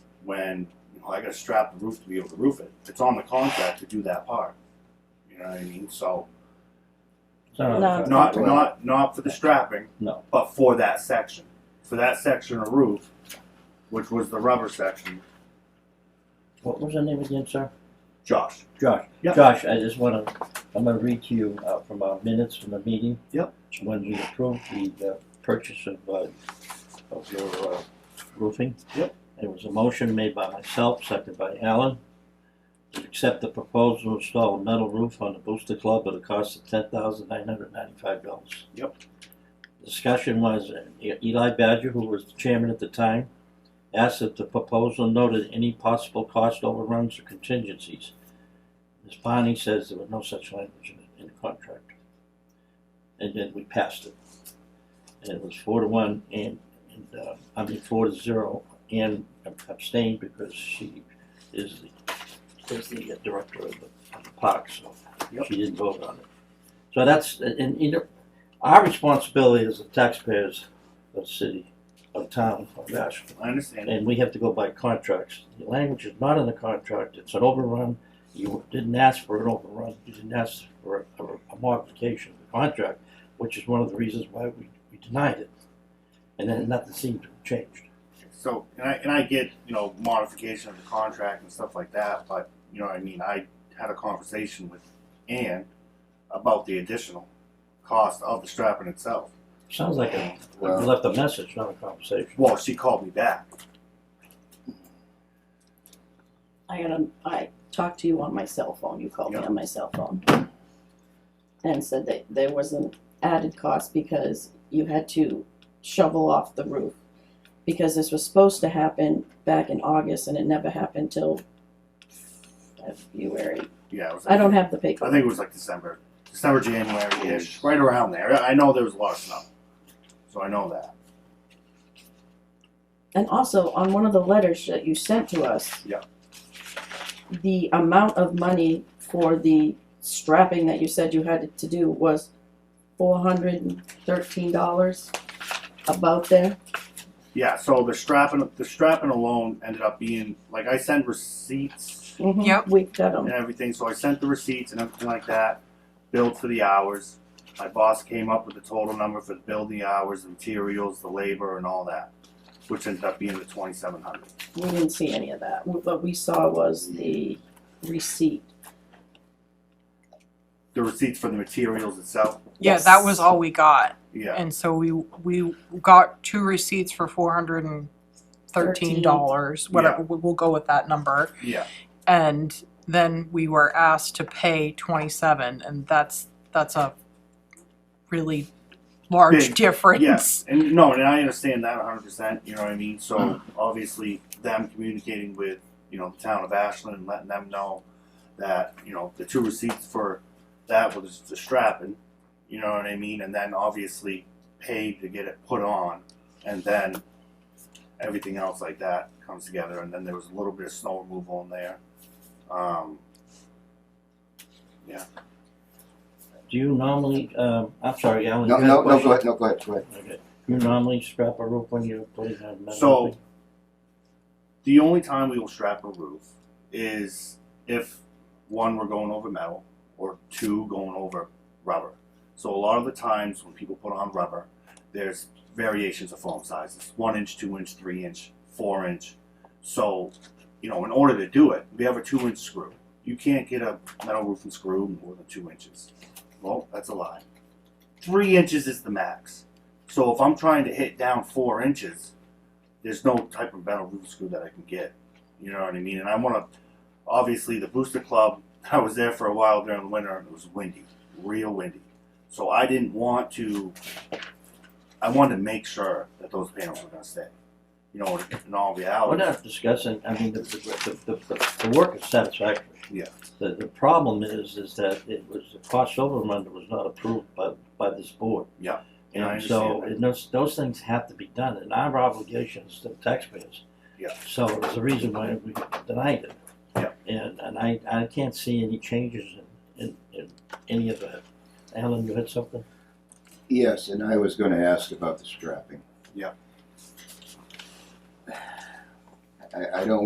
when, you know, I gotta strap the roof to be able to roof it. It's on the contract to do that part. You know what I mean? So, No. not, not, not for the strapping. No. But for that section, for that section of roof, which was the rubber section, What was the name again, sir? Josh. Josh. Yep. Josh, I just wanna, I'm gonna read to you uh, from our minutes from the meeting. Yep. When we approved the uh, purchase of, uh, of your uh, roofing. Yep. It was a motion made by myself, seconded by Alan, to accept the proposal to install a metal roof on the Booster Club at a cost of ten thousand nine hundred ninety-five dollars. Yep. Discussion was uh, Eli Badger, who was the chairman at the time, asked that the proposal noted any possible cost overruns or contingencies. Ms. Bonnie says there was no such language in, in the contract. And then we passed it. And it was four to one and, and, uh, I mean, four to zero and abstained because she is the, is the director of the, of the park, so Yep. she didn't vote on it. So that's, and, you know, our responsibility as the taxpayers of the city, of town, of Ashland, I understand. and we have to go by contracts. The language is not in the contract, it's an overrun. You didn't ask for an overrun, you didn't ask for a, a modification of the contract, which is one of the reasons why we, we denied it. And then nothing seemed to have changed. So, and I, and I get, you know, modification of the contract and stuff like that, but, you know, what I mean, I had a conversation with Ann about the additional cost of the strapping itself. Sounds like a, you Well- left a message, not a conversation. Well, she called me back. I got a, I talked to you on my cell phone, you called me Yeah. on my cell phone. And said that there was an added cost because you had to shovel off the roof. Because this was supposed to happen back in August and it never happened till February. Yeah, it was I don't have the I paper. think it was like December, December, January ish, right around there. I know there was a lot of snow, so I know that. And also, on one of the letters that you sent to us. Yeah. The amount of money for the strapping that you said you had to do was four hundred and thirteen dollars, about there. Yeah, so the strapping, the strapping alone ended up being like I send receipts Yep. We got and them, everything. So I sent the receipts and everything like that, billed for the hours. My boss came up with the total number for the building hours, the materials, the labor, and all that, which ended up being the twenty seven hundred. we didn't see any of that, what we saw was the receipt. The receipts for the materials itself, Yeah, Yes. that was all we got, yeah, and so we, we got two receipts for four hundred and thirteen dollars, whatever, we- we'll go with that number. yeah, And then we were asked to pay twenty-seven, and that's, that's a really large Big, difference. And no, and I understand that 100%, you know what I mean? So obviously, them communicating with, you know, the town of Ashland, letting them know that, you know, the two receipts for that was the strapping, you know what I mean? And then obviously paid to get it put on, and then everything else like that comes together. And then there was a little bit of snow removal in there. Um, Do you normally, um, I'm sorry, Alan, you No, had a no, no, question? go ahead, no, go ahead, go ahead. Okay. Do you normally strap a roof when you're putting on metal? So- roofing? The only time we will strap a roof is if one we're going over metal or two going over rubber. So a lot of the times when people put on rubber, there's variations of foam sizes: one inch, two inch, three inch, four inch. So, you know, in order to do it, we have a two inch screw. You can't get a metal roofing screw more than two inches. Well, that's a lie. Three inches is the max. So if I'm trying to hit down four inches, there's no type of metal roof screw that I can get. You know what I mean? And I want to, obviously, the Booster Club, I was there for a while during the winter and it was windy, real windy. So I didn't want to, I wanted to make sure that those panels were going to stay. You know, in all We're reality. not discussing, I mean, the, the, the, the, the work is satisfactory. Yeah. The, the problem is, is that it was, the cost overrun that was not approved by, by this board. Yeah, and I And so, understand that. and those, those things have to be done, and our obligations to taxpayers. Yeah. So there's a reason why we denied it. Yeah. And, and I, I can't see any changes in, in, in any of that. Alan, you had something? Yes, and I was gonna ask about the strapping. Yeah. I, I don't